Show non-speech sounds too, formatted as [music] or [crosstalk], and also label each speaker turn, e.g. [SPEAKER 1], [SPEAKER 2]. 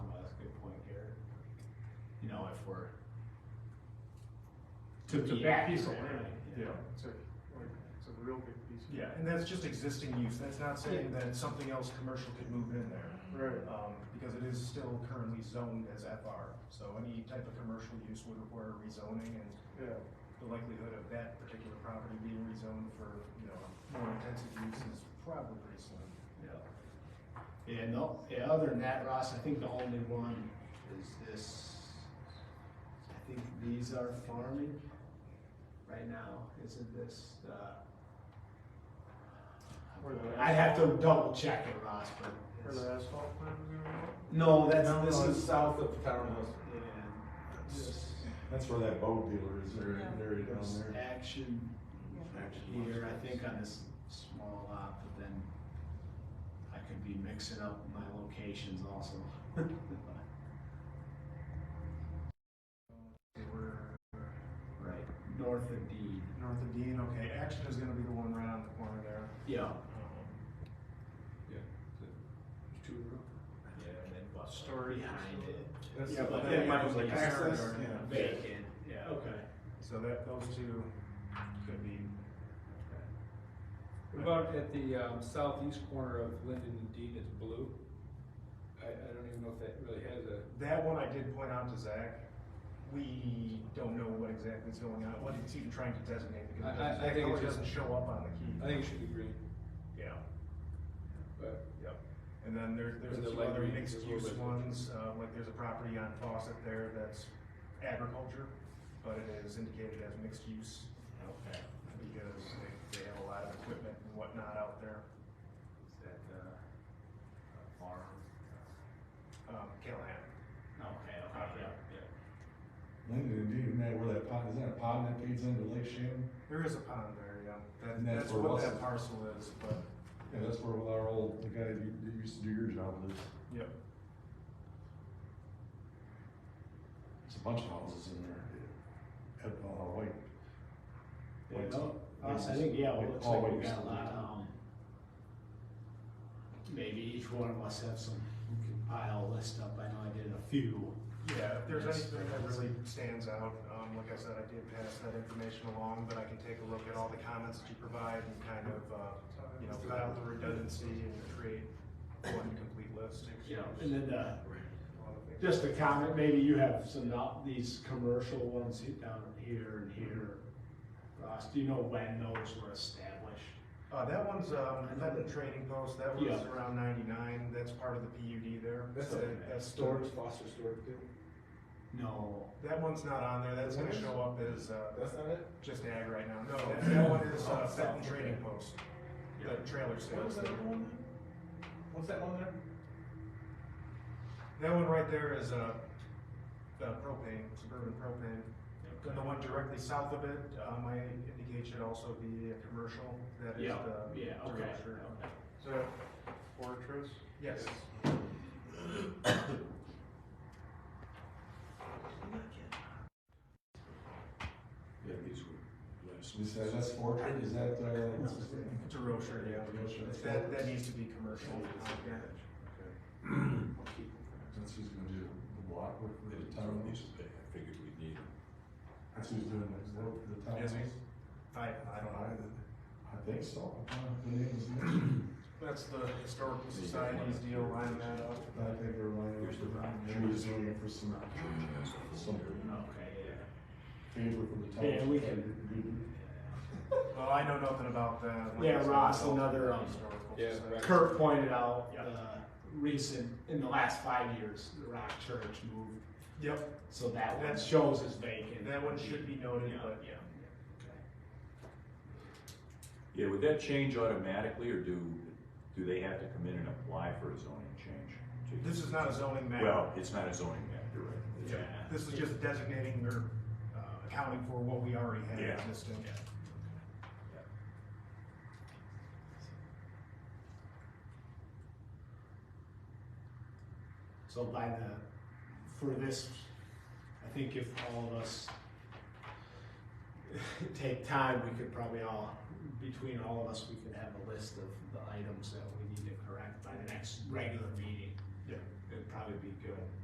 [SPEAKER 1] for.
[SPEAKER 2] To
[SPEAKER 1] To
[SPEAKER 2] be
[SPEAKER 1] the back piece of
[SPEAKER 2] accurate.
[SPEAKER 1] land,
[SPEAKER 2] Yeah.
[SPEAKER 1] yeah, it's a, like, it's a real big piece. of-
[SPEAKER 2] Yeah, and that's just existing use, that's not saying that something else commercial could move in there.
[SPEAKER 1] Right.
[SPEAKER 2] Um, because it is still currently zoned as FR, so any type of commercial use would require rezoning and
[SPEAKER 1] Yeah,
[SPEAKER 2] the likelihood of that particular property being rezoned for, you know, more intensive use is probably pretty slim.
[SPEAKER 1] yeah. And no, yeah, other than that, Ross, I think the only one is this, I think these are farming right now, isn't this, uh? I'd have to double check it, Ross, but.
[SPEAKER 3] Or
[SPEAKER 1] it's-
[SPEAKER 3] the asphalt plant we were at?
[SPEAKER 1] No, that's,
[SPEAKER 4] No,
[SPEAKER 1] this
[SPEAKER 4] no, it's
[SPEAKER 1] is.
[SPEAKER 4] south of Townhouse.
[SPEAKER 1] And this
[SPEAKER 4] That's where that boat dealer is, there,
[SPEAKER 3] Yeah.
[SPEAKER 4] there down
[SPEAKER 1] was
[SPEAKER 4] there.
[SPEAKER 1] action
[SPEAKER 4] Actually,
[SPEAKER 1] here, I think on this small lot, but then I could be mixing up my locations also. [laughs]
[SPEAKER 2] They were
[SPEAKER 1] Right, north of D,
[SPEAKER 2] north of Dean, okay, Action is gonna be the one right on the corner there. Um,
[SPEAKER 1] yeah. Yeah, and then what story behind it.
[SPEAKER 4] That's
[SPEAKER 2] Yeah,
[SPEAKER 4] the-
[SPEAKER 2] but
[SPEAKER 1] But
[SPEAKER 2] then
[SPEAKER 1] then
[SPEAKER 2] you have, like,
[SPEAKER 1] like
[SPEAKER 2] access,
[SPEAKER 1] access,
[SPEAKER 2] yeah.
[SPEAKER 1] vacant, yeah, okay.
[SPEAKER 2] So that, those two could be.
[SPEAKER 5] What About at the um, southeast corner of Linden and Dean is blue. I, I don't even know if that really has a,
[SPEAKER 2] That one I did point out to Zach, we don't know what exactly is going on, what it's even trying to designate, because it
[SPEAKER 5] I- I- I
[SPEAKER 2] doesn't- that
[SPEAKER 5] think it's
[SPEAKER 2] color
[SPEAKER 5] just-
[SPEAKER 2] doesn't show up on the key.
[SPEAKER 5] I think it should be green,
[SPEAKER 2] Yeah,
[SPEAKER 5] but
[SPEAKER 2] yep. And then there, there's
[SPEAKER 5] And
[SPEAKER 2] a
[SPEAKER 5] the
[SPEAKER 2] few
[SPEAKER 5] light
[SPEAKER 2] other
[SPEAKER 5] green is a
[SPEAKER 2] mixed
[SPEAKER 5] little
[SPEAKER 2] use
[SPEAKER 5] bit-
[SPEAKER 2] ones, uh, like there's a property on Fawcett there that's agriculture, but it is indicated as mixed use,
[SPEAKER 1] Okay.
[SPEAKER 2] because they, they have a lot of equipment and whatnot out there.
[SPEAKER 1] Is that, uh, a farm?
[SPEAKER 2] Um, Callahan,
[SPEAKER 1] Okay, okay, yeah, yeah.
[SPEAKER 4] Linden and Dean, that where that pond, is that a pond that feeds into Lake Shannon?
[SPEAKER 2] there is a pond there, yeah, that,
[SPEAKER 4] And that's
[SPEAKER 2] that's
[SPEAKER 4] where
[SPEAKER 2] what
[SPEAKER 4] Russell-
[SPEAKER 2] that parcel is, but,
[SPEAKER 4] Yeah, that's where our old, the guy that u- that used to do your job lives.
[SPEAKER 2] yep.
[SPEAKER 4] There's a bunch of houses in there. At, uh, White.
[SPEAKER 1] Yeah,
[SPEAKER 4] White-
[SPEAKER 1] no, us, I
[SPEAKER 4] White's-
[SPEAKER 1] think, yeah, well,
[SPEAKER 4] White-
[SPEAKER 1] it looks
[SPEAKER 4] Paul
[SPEAKER 1] like we
[SPEAKER 4] White's
[SPEAKER 1] got a
[SPEAKER 4] still
[SPEAKER 1] lot
[SPEAKER 4] there.
[SPEAKER 1] of, um, maybe each one of us have some, we can pile a list up, I know I did a few.
[SPEAKER 2] Yeah, if there's
[SPEAKER 1] Yes.
[SPEAKER 2] anything that really stands out, um, like I said, I did pass that information along, but I can take a look at all the comments that you provide and kind of, uh, you know, cut out the redundancy and create one complete list.
[SPEAKER 1] You know, and then, uh, just a comment, maybe you have some, of these commercial ones hit down here and here. Ross, do you know when those were established?
[SPEAKER 2] Uh, that one's, um, that the training post, that was
[SPEAKER 1] Yeah.
[SPEAKER 2] around ninety-nine, that's part of the PUD there.
[SPEAKER 1] That's
[SPEAKER 2] So
[SPEAKER 1] okay.
[SPEAKER 2] that- That's
[SPEAKER 6] Storage, Foster Storage Field.
[SPEAKER 1] No,
[SPEAKER 2] That one's not on there, that's gonna
[SPEAKER 6] That
[SPEAKER 2] show up as, uh,
[SPEAKER 6] That's not it?
[SPEAKER 2] just ag right now. No, that, that one is, uh,
[SPEAKER 1] Oh,
[SPEAKER 2] Fenton
[SPEAKER 1] okay.
[SPEAKER 2] Training Post, the trailer
[SPEAKER 6] What was
[SPEAKER 2] sales.
[SPEAKER 6] that other one? What's that one there?
[SPEAKER 2] That one right there is uh, uh, propane, suburban propane. And the one directly south of it, uh, my indication should also be a commercial, that is
[SPEAKER 1] yeah,
[SPEAKER 2] the.
[SPEAKER 1] yeah, okay,
[SPEAKER 2] director.
[SPEAKER 1] okay.
[SPEAKER 6] Is that Fortress?
[SPEAKER 2] Yes,
[SPEAKER 7] Yeah, these were last.
[SPEAKER 4] You said that's Fortran, is that, uh?
[SPEAKER 1] [laughs]
[SPEAKER 4] what's his name?
[SPEAKER 2] it's a Rocher, yeah.
[SPEAKER 4] Rocher, that's
[SPEAKER 2] That,
[SPEAKER 4] Fortran.
[SPEAKER 2] that needs to be commercial. yeah.
[SPEAKER 4] That's who's gonna do the block work for the
[SPEAKER 7] Some
[SPEAKER 4] town.
[SPEAKER 7] of these, I figured we'd need them.
[SPEAKER 4] That's who's doing the work for the town.
[SPEAKER 2] Yes, he's- I, I
[SPEAKER 4] I don't
[SPEAKER 2] don't
[SPEAKER 4] know.
[SPEAKER 2] know.
[SPEAKER 4] I think so. I don't know if the name is mentioned.
[SPEAKER 2] That's the Historical Society's deal, lining that up.
[SPEAKER 4] I think they're lining up
[SPEAKER 7] Here's the rock.
[SPEAKER 4] for, maybe he's looking for some, some
[SPEAKER 1] Okay, yeah.
[SPEAKER 4] favor from the town.
[SPEAKER 1] Yeah, we can-
[SPEAKER 2] Well, I know nothing about that.
[SPEAKER 1] Yeah, Ross, another, um,
[SPEAKER 2] Historical
[SPEAKER 5] yeah,
[SPEAKER 2] Society.
[SPEAKER 5] right.
[SPEAKER 1] Kurt pointed out, uh, recent, in the last five years, the Rock Church moved,
[SPEAKER 2] Yep,
[SPEAKER 1] so that one
[SPEAKER 2] That-
[SPEAKER 1] shows as vacant.
[SPEAKER 2] that one should be noted,
[SPEAKER 1] Yeah,
[SPEAKER 2] but
[SPEAKER 1] yeah, okay.
[SPEAKER 8] Yeah, would that change automatically, or do, do they have to come in and apply for a zoning change? to-
[SPEAKER 2] this is not a zoning matter.
[SPEAKER 8] Well, it's not a zoning map, you're right. It's-
[SPEAKER 1] Yeah.
[SPEAKER 2] This is just designating or uh, accounting for what we already have
[SPEAKER 8] Yeah.
[SPEAKER 2] existing.
[SPEAKER 1] So by the, for this, I think if all of us [laughs] take time, we could probably all, between all of us, we could have a list of the items that we need to correct by the next regular meeting.
[SPEAKER 2] Yeah.
[SPEAKER 1] It'd probably be good.